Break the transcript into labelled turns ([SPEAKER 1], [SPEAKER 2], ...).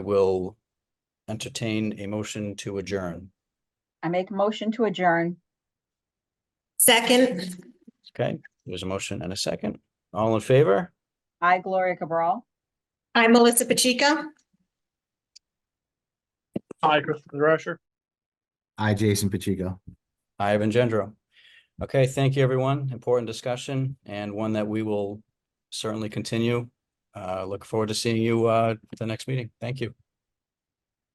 [SPEAKER 1] will entertain a motion to adjourn.
[SPEAKER 2] I make a motion to adjourn.
[SPEAKER 3] Second,
[SPEAKER 1] Okay, there's a motion and a second. All in favor?
[SPEAKER 2] I, Gloria Cabral.
[SPEAKER 3] I'm Melissa Pacheco.
[SPEAKER 4] Hi, Christopher Rusher.
[SPEAKER 5] I, Jason Pacheco.
[SPEAKER 1] Ivan Gendro. Okay, thank you, everyone. Important discussion and one that we will certainly continue. Uh, look forward to seeing you, uh, at the next meeting. Thank you.